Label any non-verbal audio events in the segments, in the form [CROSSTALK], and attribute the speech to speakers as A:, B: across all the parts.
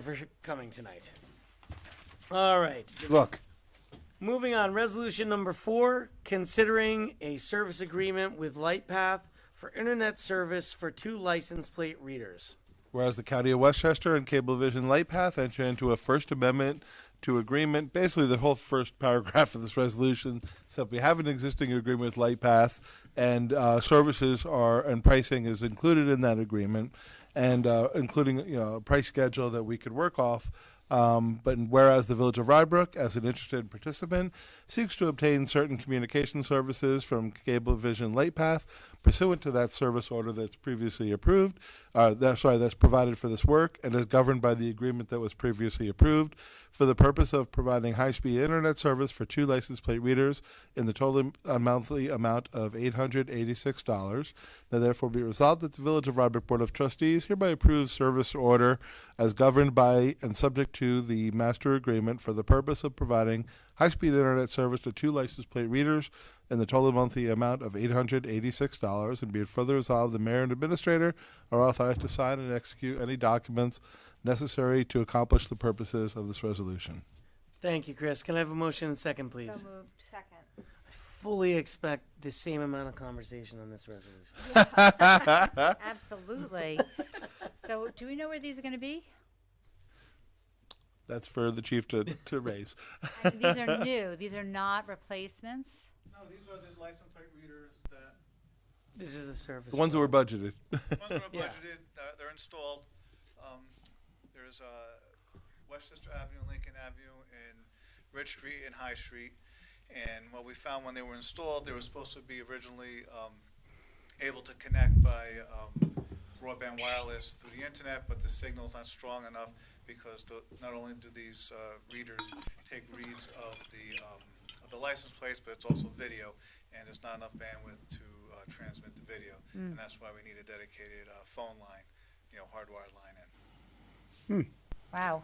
A: for coming tonight. All right,
B: Look,
A: moving on. Resolution number four, considering a service agreement with LightPath for internet service for two license plate readers.
B: whereas the county of Westchester and Cablevision Lightpath entered into a First Amendment to agreement, basically the whole first paragraph of this resolution said we have an existing agreement with Lightpath, and uh, services are and pricing is included in that agreement, and uh, including you know a price schedule that we could work off. Um, but whereas the Village of Rybrook, as an interested participant, seeks to obtain certain communication services from Cablevision Lightpath pursuant to that service order that's previously approved, uh, that, sorry, that's provided for this work and is governed by the agreement that was previously approved for the purpose of providing high-speed internet service for two license plate readers in the total uh, monthly amount of $886. Now therefore be resolved that the Village of Rybrook Board of Trustees hereby approves service order as governed by and subject to the master agreement for the purpose of providing high-speed internet service to two license plate readers in the total monthly amount of $886 and be it further resolved the mayor and administrator are authorized to sign and execute any documents necessary to accomplish the purposes of this resolution.
A: Thank you, Chris. Can I have a motion and second, please?
C: So moved. Second.
A: Fully expect the same amount of conversation on this resolution. Uh.
C: Absolutely. So do we know where these are going to be?
B: That's for the chief to, to raise.
C: I- These are
A: [LAUGHS]
C: new. These are not replacements.
D: No, these are the license plate readers that,
A: This is the service.
B: The ones that were budgeted.
D: ones that are
A: Yeah.
D: budgeted, they're, they're installed. Um, there's, uh, Westchester Avenue, Lincoln Avenue, and Ridge Street and High Street. And what we found when they were installed, they were supposed to be originally, um, able to connect by, um, broadband wireless through the internet, but the signal's not strong enough because the, not only do these, uh, readers take reads of the, um, of the license plates, but it's also video, and there's not enough bandwidth to, uh, transmit the video.
E: Mm.
D: And that's why we need a dedicated, uh, phone line, you know, hardwired line in.
C: Wow.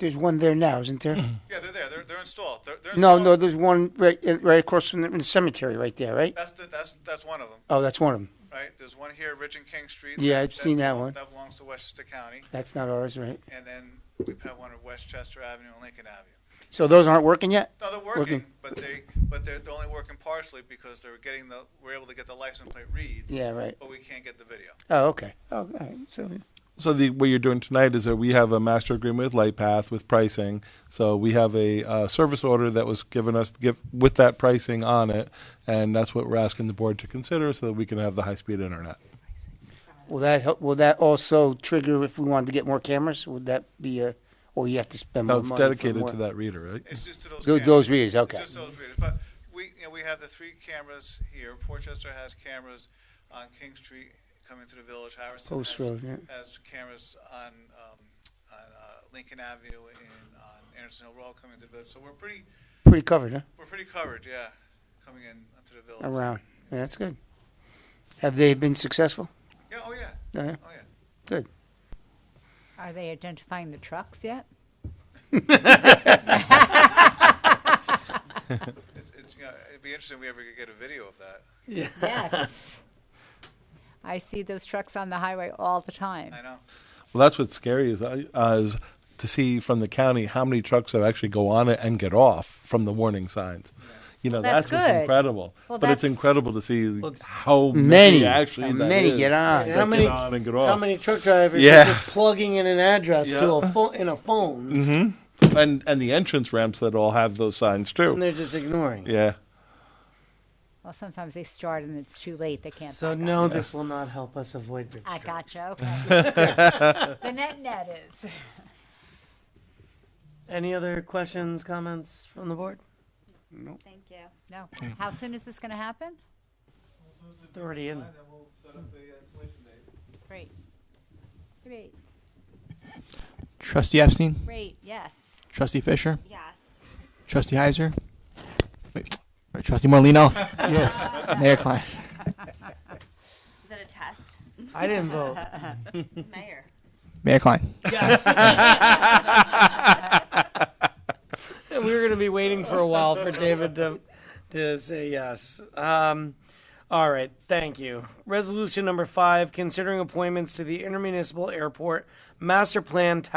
E: There's one there now, isn't there?
D: Yeah, they're there, they're, they're installed, they're, they're
E: no,
D: installed.
E: no, there's one right, right across from the, in the cemetery, right there, right?
D: That's, the- that's, that's one of them,
E: Oh, that's one of them.
D: right? There's one here, Ridge and King Street.
E: Yeah, I've seen that
D: belong-
E: one.
D: That belongs to Westchester County,
E: That's not ours, right?
D: and then we have one at Westchester Avenue and Lincoln Avenue.
E: So those aren't working yet.
D: No, they're working, but they, but they're, they're only working partially because they're getting the, we're able to get the license plate reads.
E: Yeah, right.
D: But we can't get the video.
E: Oh, okay. Oh, all right. So
B: So the, what you're doing tonight is that we have a master agreement with LightPath with pricing. So we have a uh, service order that was given us to give, with that pricing on it, and that's what we're asking the board to consider so that we can have the high-speed internet.
E: will that help, will that also trigger if we wanted to get more cameras? Would that be a or you have to spend
B: No,
E: more
B: it's
E: money? for
B: dedicated
E: more-
B: to that reader, right?
D: It's just to those.
E: Those-
D: cameras.
E: those readers,
D: It's
E: okay.
D: Just those readers, but we, you know, we have the three cameras here. Portchester has cameras on King Street coming to the village. Harrison
E: Post
D: has,
E: Road, yeah.
D: has cameras on, um, on, uh, Lincoln Avenue and on Anderson Hill Road coming to the village. So we're pretty,
E: Pretty covered, huh?
D: we're pretty covered, yeah, coming in to the village.
E: Around. Yeah, that's good. Have they been successful? Uh,
D: Yeah, oh, yeah,
E: Yeah.
D: oh, yeah.
E: Good.
C: Are they identifying the trucks yet?
D: It's, it's, you know, it'd be interesting if we ever could get a video of that.
C: Yes. [LAUGHS] I see those trucks on the highway all the time.
D: I know.
B: Well, that's what's scary is, I- uh, is to see from the county how many trucks have actually go on it and get off from the warning signs. You know,
C: Well,
B: that's,
C: that's
B: what's
C: good.
B: incredible.
C: Well,
B: but it's
C: that's-
B: incredible to see how many,
E: Many.
B: actually
E: How
B: that
E: many
B: is
E: get on.
B: that
A: How many-
B: get on and
A: [LAUGHS]
B: get
A: How
B: off.
A: many truck drivers
B: Yeah.
A: are just plugging in an address to a phone in a phone
B: Mm-hmm. and and the entrance ramps that all have those signs
A: and
B: too.
A: they're just ignoring?
B: Yeah.
C: Well, sometimes they start and it's too late. They can't.
A: So
C: back up.
A: no, this will not help us avoid bridge
C: I
A: trucks. [LAUGHS]
C: gotcha. Okay. [LAUGHS] the net net is.
A: Any other questions, comments from the board?
F: Thank you.
C: No. How soon is this going to happen?
A: It's already in.
C: Great. Great.
G: Trustee Epstein,
C: Great. Yes.
G: Trustee Fisher,
F: Yes.
G: Trustee Heiser, wait, wait, Trustee Morlino, yes, Mayor Klein.
F: Is that a test?
A: I didn't vote. [LAUGHS]
F: Mayor.
G: Mayor Klein.
A: Yes. [LAUGHS] we were going to be waiting for a while for David to, to say yes. Um, all right. Thank you. Resolution number five considering appointments to the Intermunicipal Airport Master Plan Task